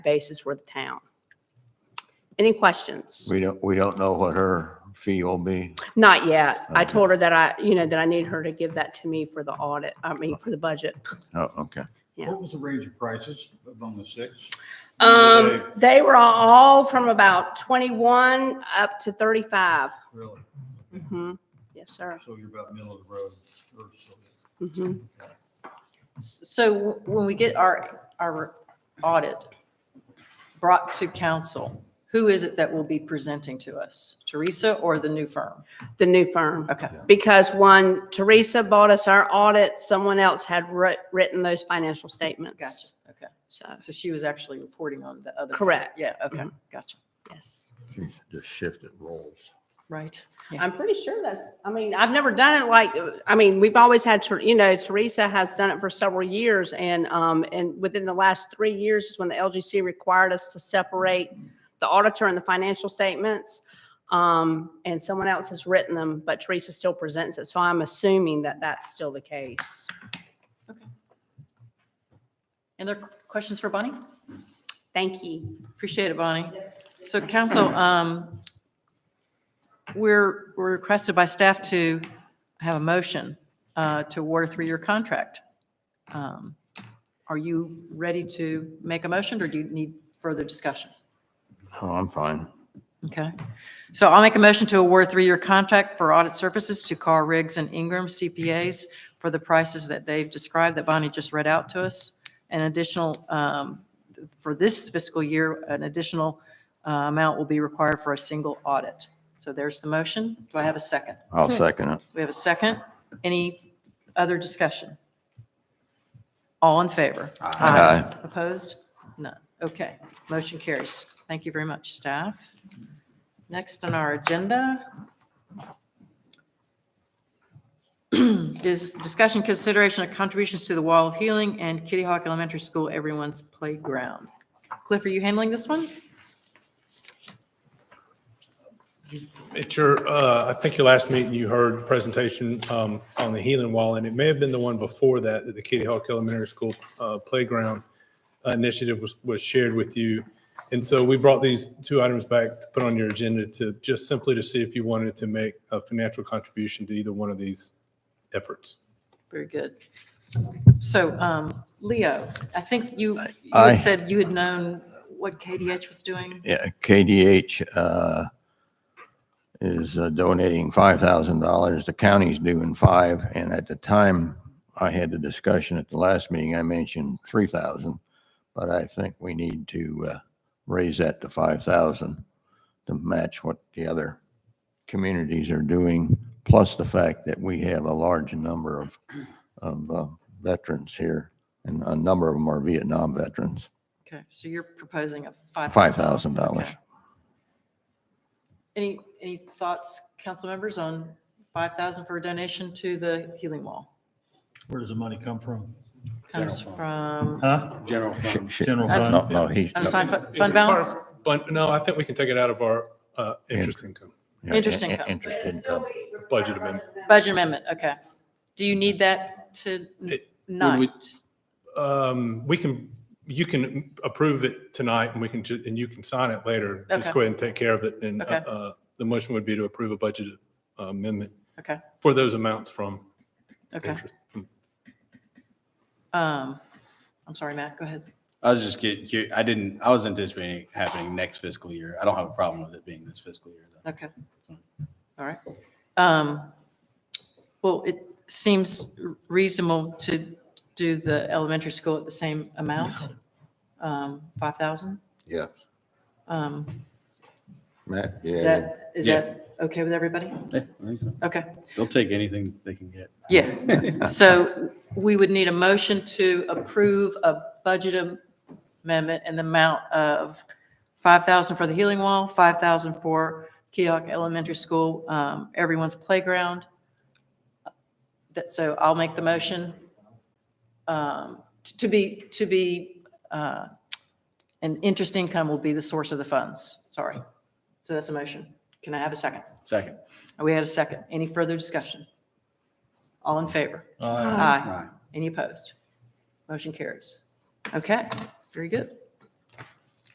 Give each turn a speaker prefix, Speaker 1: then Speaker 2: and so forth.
Speaker 1: basis with the town. Any questions?
Speaker 2: We don't, we don't know what her fee will be.
Speaker 1: Not yet. I
Speaker 2: Okay.
Speaker 1: told her that I, you know, that I need her to give that to me for the audit, I mean, for the budget.
Speaker 2: Oh, okay.
Speaker 1: Yeah.
Speaker 3: What was the range of prices among the six?
Speaker 1: Um, they were all from about twenty-one up to thirty-five.
Speaker 3: Really?
Speaker 1: Mhm. Yes, sir.
Speaker 3: So you're about middle of the road. or so.
Speaker 1: Mhm.
Speaker 4: So when we get our, our audit brought to council, who is it that will be presenting to us? Teresa or the new firm?
Speaker 1: The new firm.
Speaker 4: Okay,
Speaker 1: Because one, Teresa bought us our audit, someone else had writ- written those financial
Speaker 4: gotcha,
Speaker 1: statements.
Speaker 4: okay.
Speaker 1: So,
Speaker 4: So she was actually reporting on the other. firm.
Speaker 1: Correct.
Speaker 4: Yeah, okay, gotcha.
Speaker 1: yes.
Speaker 2: Just shift it roles.
Speaker 4: Right. Yeah.
Speaker 1: I'm pretty sure that's, I mean, I've never done it like, I mean, we've always had, Ter- you know, Teresa has done it for several years. And, um, and within the last three years is when the LGC required us to separate the auditor and the financial statements. Um, and someone else has written them, but Teresa still presents it. So I'm assuming that that's still the case.
Speaker 4: Any other questions for Bonnie?
Speaker 1: Thank you.
Speaker 4: Appreciate it, Bonnie. So council, um, we're, we're requested by staff to have a motion, uh, to award a three-year contract. Um, Are you ready to make a motion or do you need further discussion?
Speaker 2: Oh, I'm fine.
Speaker 4: Okay. So I'll make a motion to award a three-year contract for audit services to Carr Riggs and Ingram CPAs for the prices that they've described that Bonnie just read out to us. An additional, um, for this fiscal year, an additional uh, amount will be required for a single audit. So there's the motion. Do I have a second?
Speaker 2: I'll second it.
Speaker 4: We have a second. Any other discussion? All in favor?
Speaker 2: Aye.
Speaker 4: Opposed? None. Okay, motion carries. Thank you very much, staff. Next on our agenda is discussion consideration of contributions to the Wall of Healing and Kitty Hawk Elementary School, everyone's playground. Cliff, are you handling this one?
Speaker 5: At your, uh, I think your last meeting, you heard the presentation um, on the Healing Wall, and it may have been the one before that, that the Kitty Hawk Elementary School uh, Playground Initiative was, was shared with you. And so we brought these two items back to put on your agenda to, just simply to see if you wanted to make a financial contribution to either one of these efforts.
Speaker 4: Very good. So, um, Leo, I think you, you
Speaker 2: Aye.
Speaker 4: had said you had known what KDH was doing.
Speaker 2: Yeah, KDH, uh, is uh, donating five thousand dollars. The county's doing five. And at the time I had the discussion at the last meeting, I mentioned three thousand. But I think we need to, uh, raise that to five thousand to match what the other communities are doing. Plus the fact that we have a large number of, of uh, veterans here and a number of them are Vietnam veterans.
Speaker 4: Okay, so you're proposing a five.
Speaker 2: Five thousand dollars.
Speaker 4: Okay. Any, any thoughts, council members, on five thousand for a donation to the Healing Wall?
Speaker 3: Where does the money come from?
Speaker 4: Comes
Speaker 5: Uh,
Speaker 4: from
Speaker 3: Huh?
Speaker 6: General fund.
Speaker 2: Sh- sh-
Speaker 3: General fund.
Speaker 2: No, no, he's.
Speaker 4: unassigned fu- fund balance?
Speaker 5: But, no, I think we can take it out of our uh, interest income.
Speaker 2: Yeah,
Speaker 4: Interest
Speaker 2: in- in-
Speaker 4: income.
Speaker 2: Interest income.
Speaker 5: Budget amendment.
Speaker 4: Budget amendment, okay. Do you need that to n-
Speaker 5: It-
Speaker 4: night?
Speaker 5: Um, we can, you can approve it tonight and we can, ju- and you can sign it later. Just
Speaker 4: Okay.
Speaker 5: go ahead and take care of it. And, uh,
Speaker 4: Okay.
Speaker 5: uh, the motion would be to approve a budget uh, amendment
Speaker 4: Okay,
Speaker 5: for those amounts from
Speaker 4: okay.
Speaker 5: interest. from-
Speaker 4: Um, I'm sorry, Matt, go ahead.
Speaker 6: I was just getting, cu- I didn't, I was anticipating it happening next fiscal year. I don't have a problem with it being this fiscal year. though.
Speaker 4: Okay. All right. Um, Well, it seems reasonable to do the elementary school at the same amount, um, 5,000.
Speaker 2: Yeah,
Speaker 4: Um,
Speaker 2: Matt,
Speaker 4: Is
Speaker 2: yeah.
Speaker 4: that, is
Speaker 6: Yeah.
Speaker 4: that okay with everybody?
Speaker 6: Yeah, I think so.
Speaker 4: Okay,
Speaker 6: They'll take anything they can get.
Speaker 4: yeah. So we would need a motion to approve a budget amendment in the amount of 5,000 for the Healing Wall, 5,000 for Keokuk Elementary School, um, everyone's playground. That, so I'll make the motion um, t- to be, to be, uh, and interest income will be the source of the funds, sorry. So that's a motion. Can I have a second?
Speaker 6: Second.
Speaker 4: We had a second. Any further discussion? All in favor?
Speaker 3: Uh,
Speaker 4: Aye.
Speaker 6: Aye.
Speaker 4: Any opposed? Motion carries. Okay, very good.